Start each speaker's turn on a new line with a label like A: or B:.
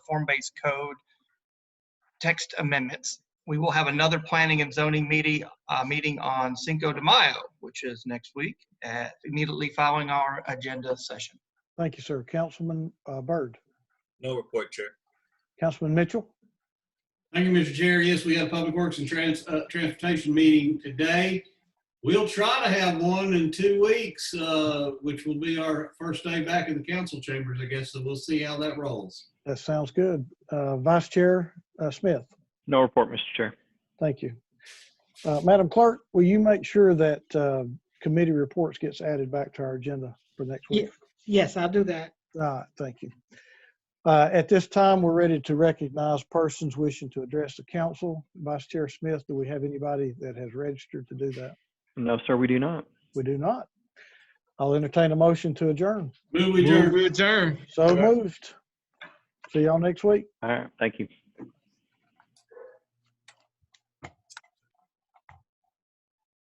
A: form-based code text amendments. We will have another planning and zoning meeting, uh, meeting on Cinco de Mayo, which is next week, at immediately following our agenda session.
B: Thank you, sir. Councilman uh, Byrd,
C: No report, Chair.
B: Councilman Mitchell,
D: Thank you, Mr. Chair. Yes, we had a Public Works and Trans, uh, Transportation meeting today. We'll try to have one in two weeks, uh, which will be our first day back in the council chambers, I guess, so we'll see how that rolls.
B: that sounds good. Uh, Vice Chair uh, Smith,
E: No report, Mr. Chair.
B: thank you. Uh, Madam Clerk, will you make sure that uh, committee reports gets added back to our agenda for next week?
F: Yes, I'll do that.
B: All right, thank you. Uh, At this time, we're ready to recognize persons wishing to address the council. Vice Chair Smith, do we have anybody that has registered to do that?
E: No, sir, we do not.
B: We do not. I'll entertain a motion to adjourn.
D: Move adjourned.
B: So moved. See y'all next week.
E: All right, thank you.